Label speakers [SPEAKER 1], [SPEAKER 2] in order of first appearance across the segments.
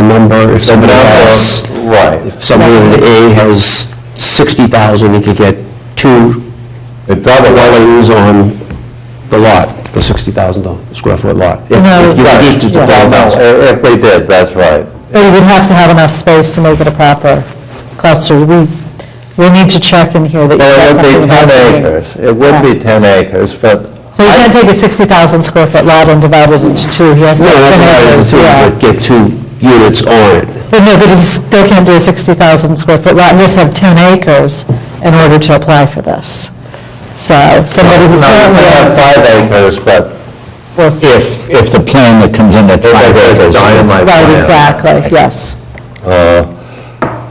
[SPEAKER 1] number, if somebody has,
[SPEAKER 2] Right.
[SPEAKER 1] if somebody in A has 60,000, he could get two
[SPEAKER 2] It double,
[SPEAKER 1] dwellings on the lot for $60,000 square foot lot. If- If you
[SPEAKER 2] right,
[SPEAKER 1] reduced it to
[SPEAKER 2] double,
[SPEAKER 1] 10,000.
[SPEAKER 2] if if we did, that's right.
[SPEAKER 3] But you would have to have enough space to make it a proper cluster. We, we'll need to check in here that you've
[SPEAKER 2] Well,
[SPEAKER 3] got
[SPEAKER 2] it would
[SPEAKER 3] something
[SPEAKER 2] be 10
[SPEAKER 3] about it.
[SPEAKER 2] acres, it would be 10 acres, but.
[SPEAKER 3] So you
[SPEAKER 2] I-
[SPEAKER 3] can't take a 60,000 square foot lot and divide it into two, he has to
[SPEAKER 1] No,
[SPEAKER 3] have
[SPEAKER 1] that's
[SPEAKER 3] 10
[SPEAKER 1] what I was
[SPEAKER 3] acres,
[SPEAKER 1] thinking,
[SPEAKER 3] yeah.
[SPEAKER 1] but get two units on it.
[SPEAKER 3] But no, but he still can't do a 60,000 square foot lot, he has to have 10 acres in order to apply for this. So somebody
[SPEAKER 2] No,
[SPEAKER 3] who
[SPEAKER 2] you
[SPEAKER 3] currently
[SPEAKER 2] can have
[SPEAKER 3] has
[SPEAKER 2] five acres, but
[SPEAKER 3] four
[SPEAKER 4] If, if the plan that comes in at five
[SPEAKER 2] If it's
[SPEAKER 4] acres.
[SPEAKER 2] dynamite
[SPEAKER 3] Right,
[SPEAKER 2] plan.
[SPEAKER 3] exactly, yes.
[SPEAKER 2] But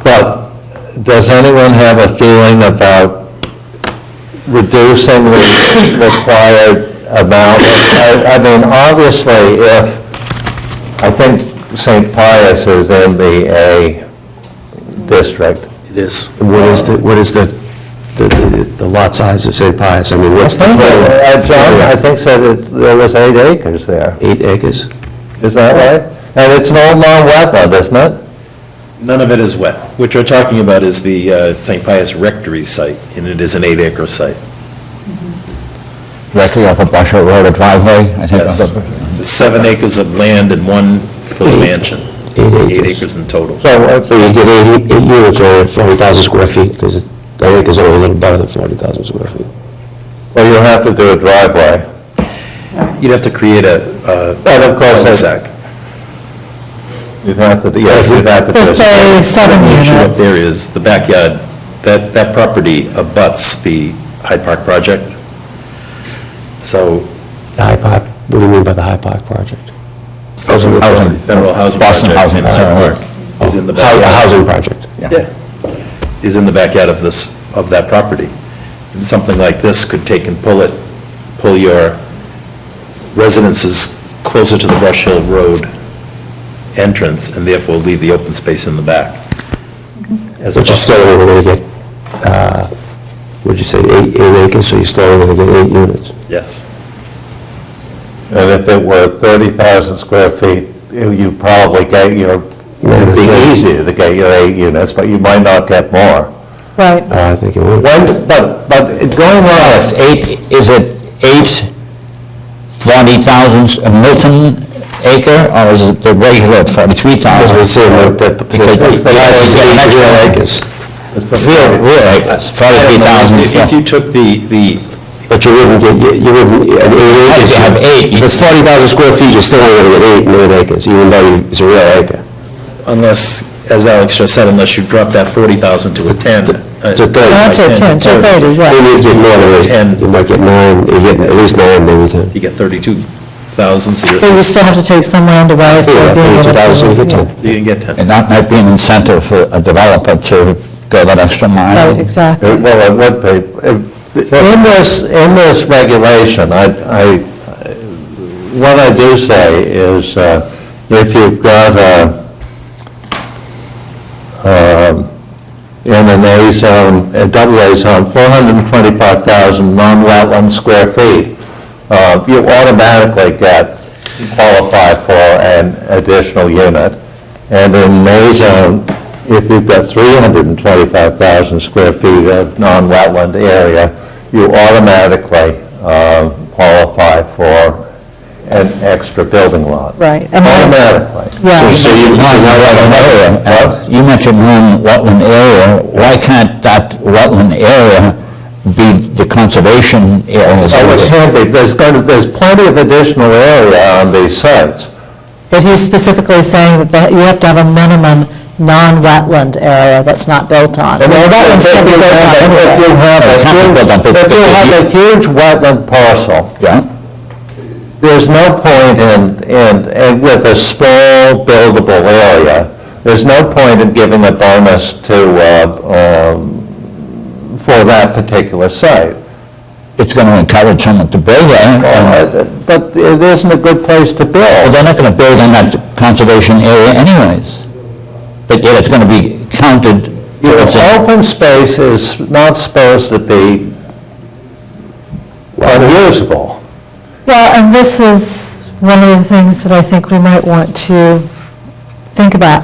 [SPEAKER 2] Uh, does anyone have a feeling about reducing the required amount? I I mean, obviously, if, I think St. Pius is in the A district.
[SPEAKER 1] It is. What is the, what is the, the- the the lot size of St. Pius? I mean, what's the total?
[SPEAKER 2] Uh, John, I think said it- there was eight acres there,
[SPEAKER 1] Eight acres?
[SPEAKER 2] is that right? And it's no long wetland, isn't it?
[SPEAKER 5] None of it is wet. What you're talking about is the uh, St. Pius Rectory site, and it is an eight-acre site.
[SPEAKER 4] Directly off of Busher Road or driveway, I think.
[SPEAKER 5] Yes. There's Seven acres of land and one for the mansion.
[SPEAKER 1] Eight
[SPEAKER 5] Eight
[SPEAKER 1] acres.
[SPEAKER 5] acres in total.
[SPEAKER 2] So if
[SPEAKER 1] So
[SPEAKER 2] we
[SPEAKER 1] you get eight eight units on it, 40,000 square feet, because I think it's only a little better than 40,000 square feet.
[SPEAKER 2] Well, you have to do a driveway.
[SPEAKER 5] You'd have to create a uh,
[SPEAKER 2] And of course, it's-
[SPEAKER 5] cul-de-sac.
[SPEAKER 2] You'd have to, yes, you'd have to. do a
[SPEAKER 3] So say seven
[SPEAKER 5] The issue up
[SPEAKER 3] units.
[SPEAKER 5] there is the backyard, that, that property abuts the Hyde Park project. So,
[SPEAKER 1] The High Park, what do you mean by the High Park project?
[SPEAKER 4] Housing.
[SPEAKER 5] federal housing
[SPEAKER 4] Boston
[SPEAKER 5] project in
[SPEAKER 4] housing, sorry.
[SPEAKER 5] Hyde Park is in the
[SPEAKER 1] Hou-
[SPEAKER 5] backyard.
[SPEAKER 1] a Housing project.
[SPEAKER 5] Yeah, is in the backyard of this, of that property. And something like this could take and pull it, pull your residences closer to the Brush Hill Road entrance, and therefore leave the open space in the back. As a
[SPEAKER 1] But you're
[SPEAKER 5] buffer.
[SPEAKER 1] still only going to get, uh, what'd you say, eight eight acres, so you're still only going to get eight units.
[SPEAKER 5] Yes.
[SPEAKER 2] And if it were 30,000 square feet, you- you'd probably get your, it'd be easier to get your eight units, but you might not get more.
[SPEAKER 3] Right.
[SPEAKER 1] Uh, I think it would.
[SPEAKER 2] When, but, but going on,
[SPEAKER 4] Yes, eight, is it eight 40,000 a Milton acre, or is it the regular 43,000?
[SPEAKER 1] As we say, like, that-
[SPEAKER 4] Because
[SPEAKER 2] It's the last
[SPEAKER 4] you get an
[SPEAKER 2] eight
[SPEAKER 4] extra
[SPEAKER 2] real
[SPEAKER 4] acres.
[SPEAKER 2] it's the
[SPEAKER 4] Real,
[SPEAKER 2] field.
[SPEAKER 4] real acres, 43,000.
[SPEAKER 5] If if you took the, the,
[SPEAKER 1] But you wouldn't get, you- you wouldn't, an eight
[SPEAKER 4] If
[SPEAKER 1] acres.
[SPEAKER 4] you have eight, you-
[SPEAKER 1] If it's 40,000 square feet, you're still only going to get eight, nine acres, even though you- it's a real acre.
[SPEAKER 5] unless, as Alex just said, unless you drop that 40,000 to a 10. uh,
[SPEAKER 1] To 30.
[SPEAKER 3] Not to 10, to 30, right.
[SPEAKER 1] Maybe you get more than
[SPEAKER 5] Ten.
[SPEAKER 1] eight. You might get nine, you get at least nine, maybe 10.
[SPEAKER 5] You get 32,000, so
[SPEAKER 3] But you
[SPEAKER 5] you're,
[SPEAKER 3] still have to take some land away for
[SPEAKER 1] Yeah,
[SPEAKER 3] being able to...
[SPEAKER 1] 32,000, you get 10.
[SPEAKER 5] you can get 10.
[SPEAKER 4] And that might be an incentive for a developer to go that extra mile.
[SPEAKER 3] Right, exactly.
[SPEAKER 2] It- Well, it would be. If- In this, in this regulation, I, I, what I do say is, uh, if you've got a, um, in an A zone, a double A zone, 425,000 non-wetland square feet, uh, you automatically get, qualify for an additional unit. And in an A zone, if you've got 325,000 square feet of non-wetland area, you automatically uh, qualify for an extra building lot.
[SPEAKER 3] Right. and then-
[SPEAKER 2] Automatically.
[SPEAKER 3] Yeah.
[SPEAKER 4] So you mentioned wetland area, uh, you mentioned one wetland area, why can't that wetland area be the conservation areas?
[SPEAKER 2] So Oh, it's handy, there's going to, there's plenty of additional area on these sites.
[SPEAKER 3] But he's specifically saying that that you have to have a minimum non-wetland area that's not built on.
[SPEAKER 2] And
[SPEAKER 3] Well, wetlands can be
[SPEAKER 2] if you
[SPEAKER 3] built on
[SPEAKER 2] have a- If you
[SPEAKER 3] anyway.
[SPEAKER 2] have
[SPEAKER 4] It can't be built on,
[SPEAKER 2] a
[SPEAKER 4] but-
[SPEAKER 2] huge, if
[SPEAKER 4] but
[SPEAKER 2] you
[SPEAKER 4] if
[SPEAKER 2] have
[SPEAKER 4] you-
[SPEAKER 2] a huge wetland parcel,
[SPEAKER 4] Yeah,
[SPEAKER 2] there's no point in, in, and with a small buildable area, there's no point in giving a bonus to, uh, um, for that particular site.
[SPEAKER 4] it's going to encourage someone to build there, and-
[SPEAKER 2] Uh, But it isn't a good place to
[SPEAKER 4] well,
[SPEAKER 2] build.
[SPEAKER 4] they're not going to build in that conservation area anyways, but yet it's going to be counted
[SPEAKER 2] You
[SPEAKER 4] towards
[SPEAKER 2] know,
[SPEAKER 4] it.
[SPEAKER 2] open space is not supposed to be unusable.
[SPEAKER 3] Well, and this is one of the things that I think we might want to think about